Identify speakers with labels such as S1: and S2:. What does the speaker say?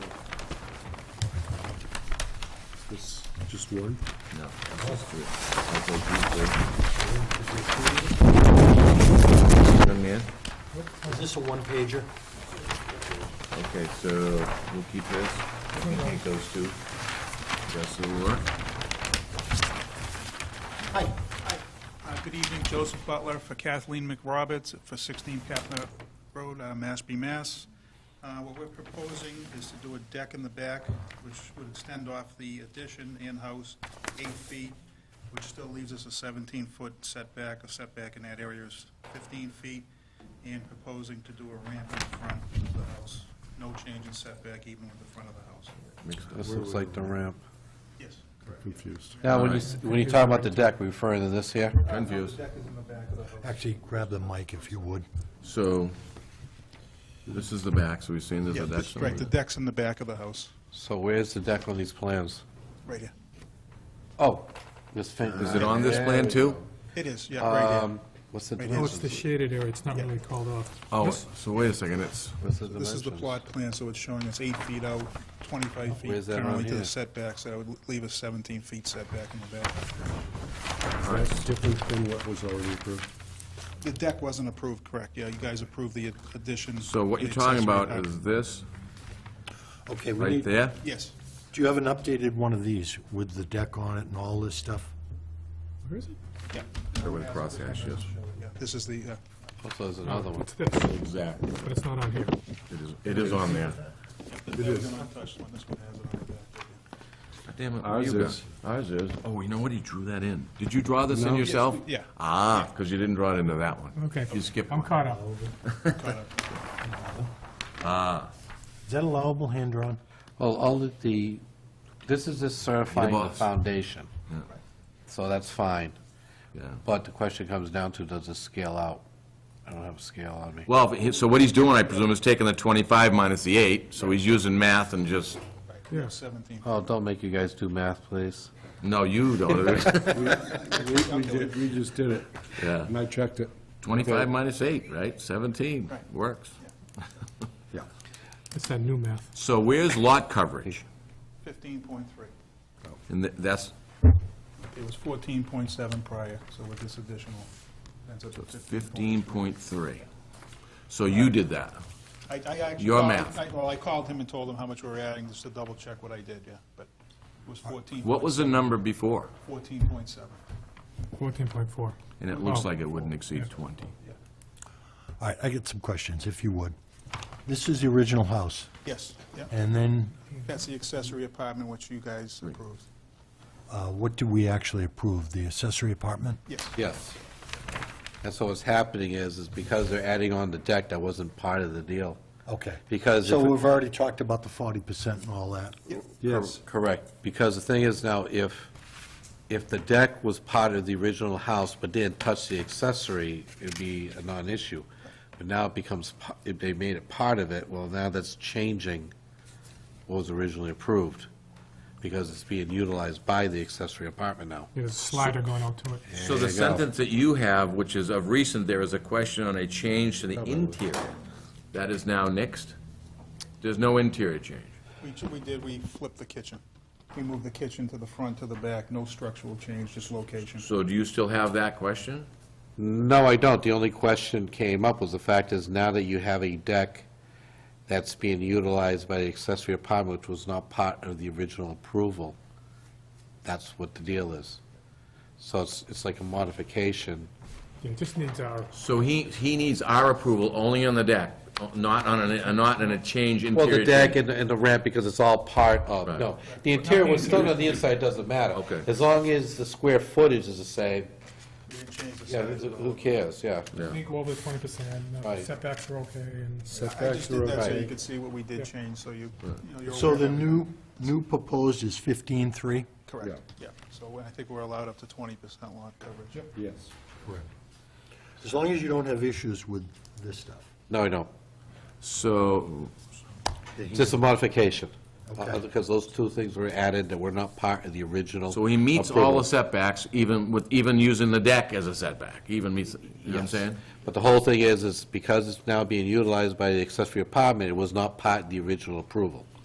S1: This, just one?
S2: No. it's just three. Sounds like you three. Young man?
S3: Is this a one pager?
S2: Okay, so we'll keep this. We can take those two. That's the work.
S3: Hi.
S4: Uh, Good evening, Joseph Butler for Kathleen McRoberts for 16 Patna Road, uh, Mashpee, Mass. Uh, What we're proposing is to do a deck in the back, which would extend off the addition in-house eight feet, which still leaves us a 17-foot setback. A setback in that area is 15 feet, and proposing to do a ramp in front of the house. No change in setback even with the front of the house.
S5: This looks like the ramp.
S4: Yes.
S1: Confused.
S5: Now, when you, s- when you talk about the deck, we referring to this here?
S2: Confused.
S4: Deck is in the back of the house.
S6: Actually, grab the mic if you would.
S2: So, this is the back, so we've seen this,
S4: Yeah,
S2: but that's.
S4: right, the deck's in the back of the house,
S5: So where's the deck on these plans?
S4: right here.
S5: Oh, this thing.
S2: Is it on this plan too?
S4: It is, yeah, right here.
S5: Um, What's the
S4: here.
S7: No, Oh, it's the
S5: dimensions?
S7: shaded area, it's not really called off.
S2: Oh, so wait a second, it's,
S5: What's the
S4: This is the
S5: dimensions?
S4: plot plan, so it's showing it's eight feet out, 25 feet
S5: Where's that on
S4: currently to
S5: here?
S4: the setbacks. That would leave us 17 feet setback in the back.
S2: all right,
S1: Different than what was already approved.
S4: The deck wasn't approved, correct? Yeah, you guys approved the additions.
S2: So what
S4: the
S2: you're talking
S4: accessory
S2: about
S4: apartment.
S2: is this,
S6: Okay, we
S2: right
S6: need, do
S2: there?
S4: Yes.
S6: you have an updated one of these with the deck on it and all this stuff?
S7: Where is it?
S4: Yeah.
S2: Or with cross hatch, yes.
S4: Yeah, This is the, uh,
S5: Also, Oh, there's another one.
S7: It's this, but
S2: Exactly.
S7: it's not on here.
S2: It is, it is on there.
S4: the deck is an untouched one. This one has it on the back.
S2: Damn it,
S1: Ours
S2: you got-
S1: is, ours is.
S2: Oh, you know what, he drew that in. Did you draw this in
S1: No.
S2: yourself?
S4: Yeah.
S2: Ah, because you didn't draw it into that one.
S7: Okay.
S2: You skipped
S7: I'm
S2: one.
S7: caught up.
S6: Is that allowable hand-drawn?
S5: Well, all of the, this is just certifying the
S2: box.
S5: foundation. So that's fine.
S2: Yeah.
S5: But the question comes down to, does it scale out? I don't have a scale on me.
S2: Well, he- so what he's doing, I presume, is taking the 25 minus the 8, so he's using math and just,
S7: Yeah.
S4: 17. feet.
S5: Oh, don't make you guys do math, please.
S2: no, you don't.
S1: We- We did- we just did it,
S2: Yeah.
S1: and I checked it.
S2: 25 minus 8, right? 17, works.
S1: Yeah.
S7: It's that new math.
S2: So where's lot coverage?
S4: 15.3.
S2: And th- that's
S4: It was 14.7 prior, so with this additional, ends up at 15.3.
S2: 15.3. So you did that.
S4: I, I actually.
S2: Your
S4: called-
S2: math.
S4: I- Well, I called him and told him how much we were adding, just to double check what I did, yeah, but it was 14.
S2: What was the number before?
S4: 14.7.
S7: Fourteen point four.
S2: And it
S7: Oh.
S2: looks like it wouldn't exceed 20.
S6: All right, I get some questions, if you would. This is the original house,
S4: Yes, yeah.
S6: and then
S4: That's the accessory apartment which you guys approved.
S6: uh, what did we actually approve? The accessory apartment?
S4: Yes,
S5: Yes. And so what's happening is, is because they're adding on the deck, that wasn't part of the deal.
S6: Okay.
S5: Because
S6: So
S5: if it-
S6: we've already talked about the 40% and all that.
S1: Yes,
S5: Correct, because the thing is now, if, if the deck was part of the original house but didn't touch the accessory, it'd be a non-issue. But now it becomes, pa- if they made it part of it, well, now that's changing what was originally approved, because it's being utilized by the accessory apartment now.
S7: There's a slider going up to it.
S2: So the
S5: you go.
S2: sentence that you have, which is of recent, there is a question on a change to the interior. That is now nixed? There's no interior change?
S4: we, ch- we did, we flipped the kitchen. We moved the kitchen to the front, to the back, no structural change, just location.
S2: So do you still have that question?
S5: No, I don't. The only question came up was the fact is now that you have a deck that's being utilized by the accessory apartment, which was not part of the original approval, that's what the deal is. So it's, it's like a modification.
S7: Yeah, it just needs our,
S2: So he, he needs our approval only on the deck, not on a, not on a change
S5: Well,
S2: interior?
S5: the deck
S2: change.
S5: and, and the ramp, because it's all part of,
S2: Right.
S5: no. The interior was still on the inside, doesn't matter.
S2: Okay.
S5: As long as the square footage is the same,
S4: We didn't change the
S5: yeah,
S4: setback.
S5: who cares, yeah.
S2: Yeah.
S7: we go over the twenty percent,
S5: Right.
S7: setbacks are okay, and
S4: I just
S1: setbacks are
S4: did that so
S5: okay.
S4: you could see what we did change, so you, you know, you're.
S6: So
S4: aware
S6: the
S4: of it.
S6: new, new proposed is 15.3?
S4: Correct, yeah. So I think we're allowed up to 20% lot coverage.
S1: yes.
S6: Correct. As long as you don't have issues with this stuff.
S5: No, I don't.
S2: So,
S5: Just a modification, uh,
S6: Okay.
S5: because those two things were added that were not part of the original.
S2: so he meets all the
S5: approval.
S2: setbacks, even with, even using the deck as a setback, even meets, you know what I'm
S5: Yes.
S2: saying?
S5: But the whole thing is, is because it's now being utilized by the accessory apartment, it was not part of the original approval.